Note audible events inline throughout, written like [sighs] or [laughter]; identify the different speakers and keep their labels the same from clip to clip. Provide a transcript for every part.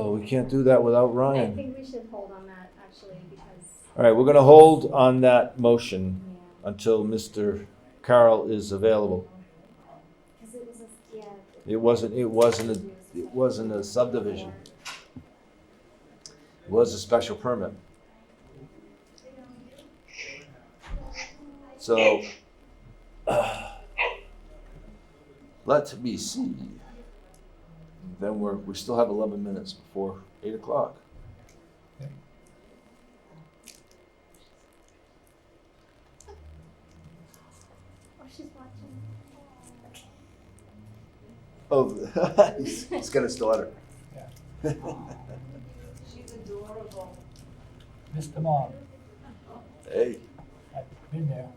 Speaker 1: Oh, can't do that without
Speaker 2: I
Speaker 1: Ryan.
Speaker 2: think we should hold on that actually because,
Speaker 1: All right, we're gonna hold on that motion
Speaker 2: yeah,
Speaker 1: until Mr. Carl is available.
Speaker 2: because it was, a- yeah.
Speaker 1: It wasn't, it wasn't, a- it wasn't a subdivision. It was a special permit. So, [sighs] let me see. Then we're, we still have eleven minutes before eight o'clock.
Speaker 2: Oh, she's watching.
Speaker 1: Oh, [laughs] he's, he's gonna stutter.
Speaker 3: She's adorable.
Speaker 4: Missed them all.
Speaker 1: Hey,
Speaker 4: I've been there.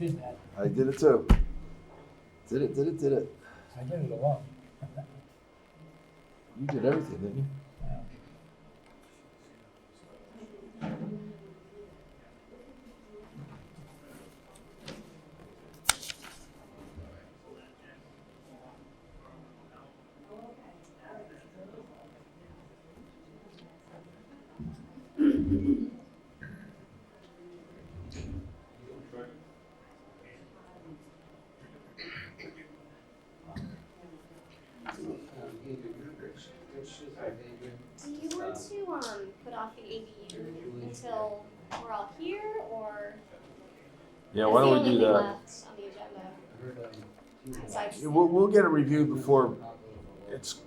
Speaker 4: Did that.
Speaker 1: I did it too. Did it, did it, did it.
Speaker 4: I did it alone.
Speaker 1: You did everything, didn't you?
Speaker 2: Do you want to, um, put off the ADU until we're all here or?
Speaker 1: Yeah, why don't we do that?
Speaker 2: That's the only thing left on the agenda. besides-
Speaker 1: We'll, we'll get a review before it's,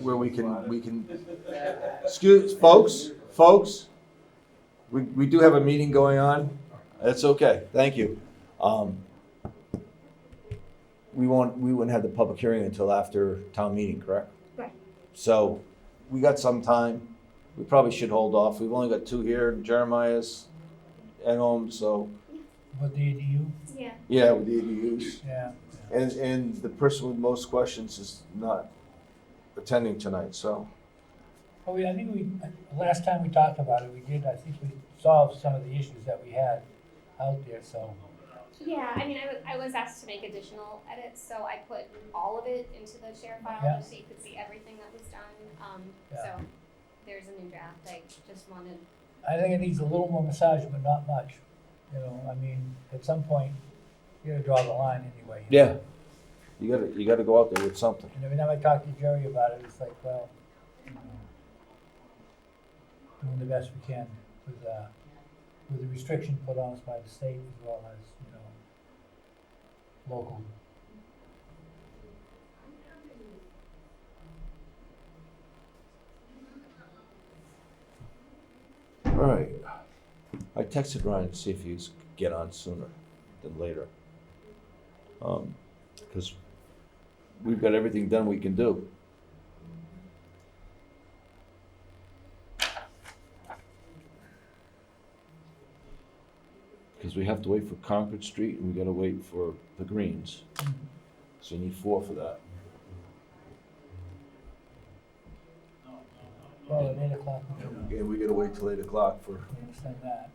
Speaker 1: where we can, we can, excuse, folks, folks, we, we do have a meeting going on. That's okay, thank you. Um, we won't, we wouldn't have the public hearing until after town meeting, correct?
Speaker 2: Right.
Speaker 1: So, we got some time. We probably should hold off. We've only got two here, Jeremiah's at home, so,
Speaker 4: What the ADU?
Speaker 2: Yeah,
Speaker 1: yeah, with the ADUs.
Speaker 4: Yeah.
Speaker 1: And, and the person with most questions is not attending tonight, so.
Speaker 4: Oh, yeah, I think we, last time we talked about it, we did, I think we solved some of the issues that we had out there, so.
Speaker 2: yeah, I mean, I was, I was asked to make additional edits, so I put all of it into the share file,
Speaker 4: Yeah.
Speaker 2: just so you could see everything that was done, um,
Speaker 4: Yeah.
Speaker 2: so. There's a new draft, I just wanted,
Speaker 4: I think it needs a little more massage, but not much. You know, I mean, at some point, you gotta draw the line anyway. you know?
Speaker 1: You gotta, you gotta go out there with something.
Speaker 4: And every time I talk to Jerry about it, it's like, well, you know, doing the best we can with, uh, with the restriction put on us by the state as well as, you know, local.
Speaker 1: All right. I texted Ryan to see if he was get on sooner than later. Um, cause we've got everything done we can do. Cause we have to wait for Concord Street and we gotta wait for the Greens. So you need four for that.
Speaker 4: Well, at eight o'clock, we can
Speaker 1: And we gotta wait till eight o'clock for,
Speaker 4: extend that.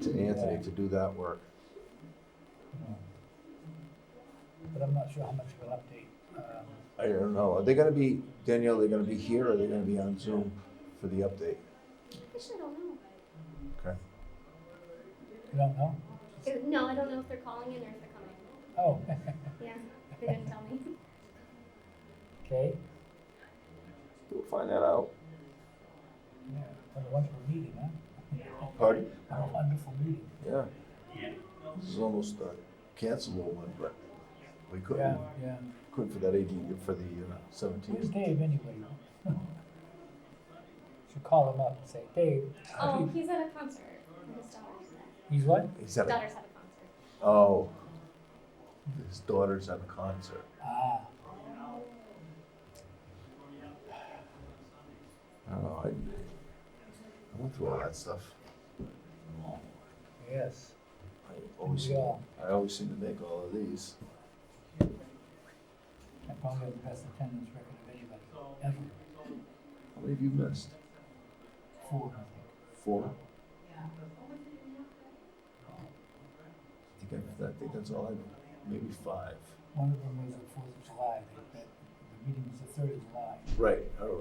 Speaker 1: to Anthony to do that work.
Speaker 4: you know. But I'm not sure how much of an update. um,
Speaker 1: I don't know, are they gonna be, Danielle, are they gonna be here or are they gonna be on Zoom for the update?
Speaker 2: actually, I don't know.
Speaker 4: You don't know?
Speaker 2: It- No, I don't know if they're calling in or if they're coming.
Speaker 4: Oh, [laughs]
Speaker 2: Yeah, they didn't tell me.
Speaker 4: okay.
Speaker 1: We'll find that out.
Speaker 4: Yeah, What a wonderful meeting, huh?
Speaker 1: Pardon?
Speaker 4: What a wonderful meeting.
Speaker 1: Yeah. This is almost a cancelable one, but we
Speaker 4: Yeah,
Speaker 1: couldn't,
Speaker 4: yeah.
Speaker 1: couldn't for that AD, for the uh,
Speaker 4: Who's
Speaker 1: seventeenth.
Speaker 4: Dave anyway? [laughs] Should call him up and say, Dave. I
Speaker 2: Oh,
Speaker 4: think-
Speaker 2: he's at a concert. with His daughter.
Speaker 4: He's what?
Speaker 1: He's at a,
Speaker 2: Daughter's at a concert.
Speaker 1: oh. His daughter's at a concert. I
Speaker 4: Ah,
Speaker 1: don't know, I, I went through all that stuff.
Speaker 4: yes.
Speaker 1: I always, seem-
Speaker 4: Yeah.
Speaker 1: I always seem to make all of these.
Speaker 4: I probably have the best attendance record of anybody ever.
Speaker 1: How many have you missed?
Speaker 4: Four, I think.
Speaker 1: Four? I think I, I think that's all I, maybe five.
Speaker 4: One of them was the Fourth of July. They- that- The meeting was the third of July.
Speaker 1: Right, all right.